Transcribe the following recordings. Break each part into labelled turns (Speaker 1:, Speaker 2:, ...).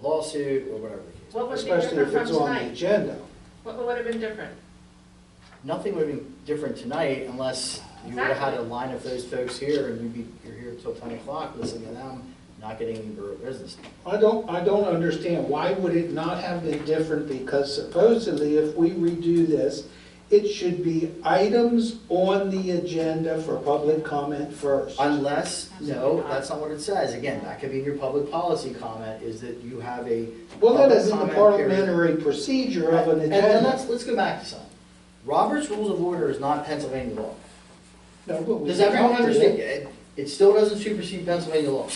Speaker 1: lawsuit or whatever.
Speaker 2: What would be
Speaker 3: Especially if
Speaker 2: different
Speaker 3: it's
Speaker 2: from
Speaker 3: on the
Speaker 2: tonight?
Speaker 3: agenda.
Speaker 2: What what would have been different?
Speaker 1: Nothing would have been different tonight unless you would have had a
Speaker 2: Exactly.
Speaker 1: line of those folks here and you'd be, you're here till ten o'clock listening to them, not getting any borough business.
Speaker 3: I don't, I don't understand, why would it not have been different? Because supposedly, if we redo this, it should be items on the agenda for public comment first.
Speaker 1: Unless, no, that's not what it says. Again, that could be in your public policy comment, is that you have a.
Speaker 3: Well, that isn't the
Speaker 1: public comment period.
Speaker 3: parliamentary procedure of an
Speaker 1: And and
Speaker 3: agenda.
Speaker 1: let's, let's go back to something. Robert's Rules of Order is not Pennsylvania law.
Speaker 3: No, but we
Speaker 1: Does everyone
Speaker 3: adopted it.
Speaker 1: understand? It- It still doesn't supersede Pennsylvania law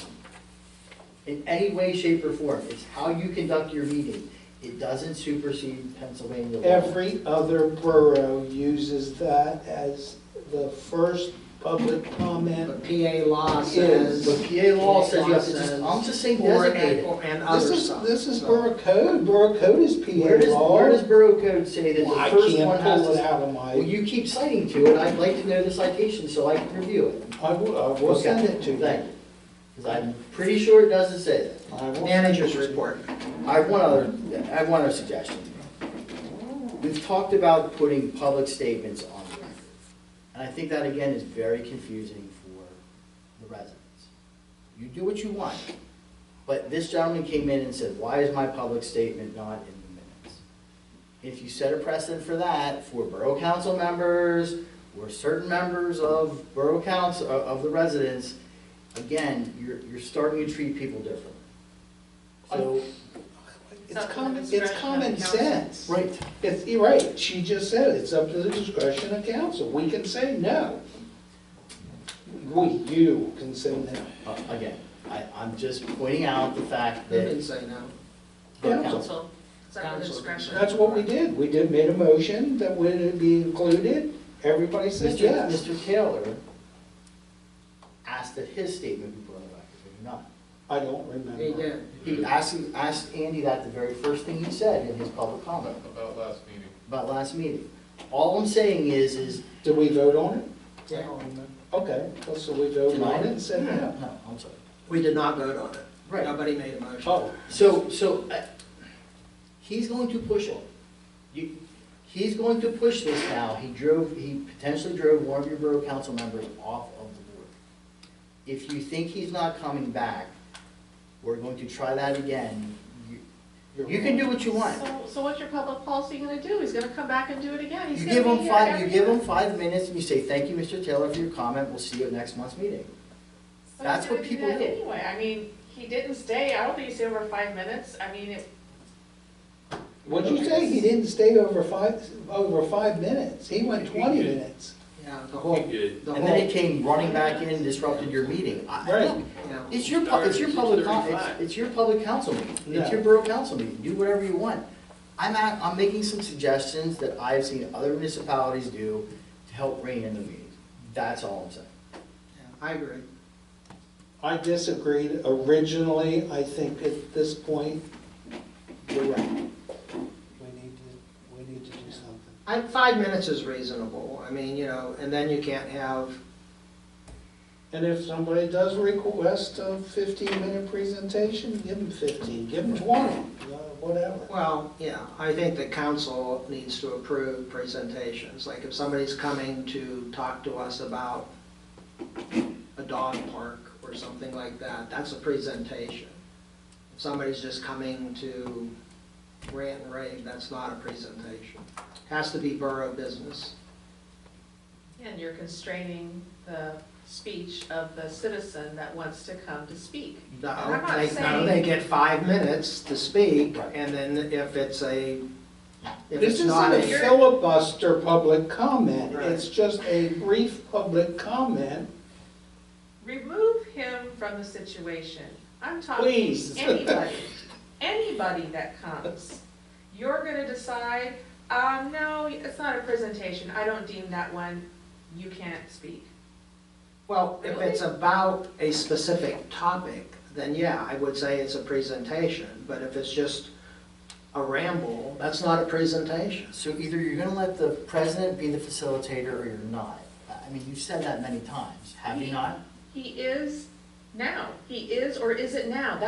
Speaker 1: in any way, shape, or form. It's how you conduct your meeting. It doesn't supersede Pennsylvania law.
Speaker 3: Every other borough uses that as the first public comment.
Speaker 4: But PA law
Speaker 3: Is-
Speaker 1: But
Speaker 4: says.
Speaker 1: PA law says you have to just, I'm just saying
Speaker 4: Or-
Speaker 1: designate it.
Speaker 4: or- And
Speaker 3: This
Speaker 4: other
Speaker 3: is,
Speaker 4: stuff.
Speaker 3: this is
Speaker 4: So-
Speaker 3: borough code, borough code is
Speaker 1: Where
Speaker 3: PA
Speaker 1: does,
Speaker 3: law.
Speaker 1: where does Borough Code say that
Speaker 3: Well, I
Speaker 1: the first one
Speaker 3: can't
Speaker 1: has
Speaker 3: pull it
Speaker 1: to?
Speaker 3: out of
Speaker 1: Well,
Speaker 3: my,
Speaker 1: you keep citing to it. I'd like to know the citation so I can review it.
Speaker 3: I will, I will send it to you.
Speaker 1: Thank you. Because I'm pretty sure it doesn't say that.
Speaker 3: I will send
Speaker 4: Manager's
Speaker 3: it to you.
Speaker 4: report.
Speaker 1: I have one other, I have one other suggestion. We've talked about putting public statements on the record. And I think that, again, is very confusing for the residents. You do what you want, but this gentleman came in and said, why is my public statement not in the minutes? If you set a precedent for that, for borough council members, or certain members of borough council, of of the residents, again, you're, you're starting to treat people differently. So,
Speaker 3: It's
Speaker 2: It's up to
Speaker 3: common,
Speaker 2: the
Speaker 3: it's
Speaker 2: discretion of
Speaker 3: common
Speaker 2: the council.
Speaker 3: sense.
Speaker 1: right,
Speaker 3: It's, you're right, she just said it's up to the discretion of council. We can say no. We, you can say no.
Speaker 1: Uh, Again, I, I'm just pointing out the fact
Speaker 4: They can
Speaker 1: that
Speaker 4: say no.
Speaker 1: the council,
Speaker 2: Council, it's up to the
Speaker 4: Council.
Speaker 2: discretion.
Speaker 3: That's what we did. We did, made a motion that would it be included. Everybody said
Speaker 1: Mr.
Speaker 3: yes.
Speaker 1: Mr. Taylor asked that his statement be put on the record, did he not?
Speaker 3: I don't remember.
Speaker 4: They did.
Speaker 1: He asked, asked Andy that the very first thing he said in his public comment
Speaker 5: About last meeting.
Speaker 1: about last meeting. All I'm saying is, is,
Speaker 3: Did we vote on it?
Speaker 4: Yeah.
Speaker 3: Okay, well, so we voted on it and said no.
Speaker 1: no, I'm sorry.
Speaker 4: We did not vote on it.
Speaker 1: Right.
Speaker 4: Nobody made a motion.
Speaker 3: Oh,
Speaker 1: So, so, uh, he's going to push it. You, he's going to push this now. He drove, he potentially drove one of your borough council members off of the board. If you think he's not coming back, we're going to try that again. You
Speaker 3: you're
Speaker 1: you can
Speaker 3: wrong.
Speaker 1: do what you want.
Speaker 2: So, so what's your public policy gonna do? He's gonna come back and do it again. He's
Speaker 1: You
Speaker 2: gonna
Speaker 1: give
Speaker 2: be
Speaker 1: him
Speaker 2: here
Speaker 1: five, you
Speaker 2: every-
Speaker 1: give him five minutes and you say, thank you, Mr. Taylor, for your comment. We'll see you at next month's meeting.
Speaker 2: So he's
Speaker 1: that's what
Speaker 2: gonna do
Speaker 1: people
Speaker 2: that
Speaker 1: did.
Speaker 2: Anyway, I mean, he didn't stay, I don't think he stayed over five minutes, I mean, it-
Speaker 3: What'd you say? He didn't stay over five, over five minutes. He went twenty minutes.
Speaker 4: Yeah, the whole,
Speaker 5: did.
Speaker 4: the
Speaker 1: And then
Speaker 4: whole,
Speaker 1: he came running back in and disrupted your meeting. I-
Speaker 3: Right.
Speaker 1: look,
Speaker 4: yeah.
Speaker 1: It's your, pub- it's your public, con- it's,
Speaker 5: 6:35.
Speaker 1: it's your public council meeting, it's your
Speaker 3: Yeah.
Speaker 1: borough council meeting, do whatever you want. I'm at, I'm making some suggestions that I've seen other municipalities do to help rein in the meetings, that's all I'm saying.
Speaker 4: Yeah, I agree.
Speaker 3: I disagreed originally, I think at this point, you're right. We need to, we need to do something.
Speaker 4: I, five minutes is reasonable. I mean, you know, and then you can't have,
Speaker 3: And if somebody does request a fifteen-minute presentation, give them fifteen, give them twenty, uh, whatever.
Speaker 4: well, yeah, I think the council needs to approve presentations. Like if somebody's coming to talk to us about a dog park or something like that, that's a presentation. If somebody's just coming to rant and rave, that's not a presentation. Has to be borough business.
Speaker 2: and you're constraining the speech of the citizen that wants to come to speak. I'm
Speaker 4: No,
Speaker 2: not
Speaker 4: they, no,
Speaker 2: saying-
Speaker 4: they get five minutes to speak,
Speaker 1: Right.
Speaker 4: and then if it's a, if
Speaker 3: This
Speaker 4: it's
Speaker 3: isn't
Speaker 4: not
Speaker 3: a
Speaker 4: a,
Speaker 3: filibuster public comment,
Speaker 4: Right.
Speaker 3: it's just a brief public comment.
Speaker 2: Remove him from the situation. I'm talking
Speaker 3: Please.
Speaker 2: anybody, anybody that comes. You're gonna decide, um, no, it's not a presentation, I don't deem that one, you can't speak.
Speaker 4: well, if it's about a specific topic, then yeah, I would say it's a presentation, but if it's just a ramble, that's not a presentation.
Speaker 1: So either you're gonna let the president be the facilitator or you're not. I I mean, you've said that many times, have you not?
Speaker 2: He is now, he is or is it now?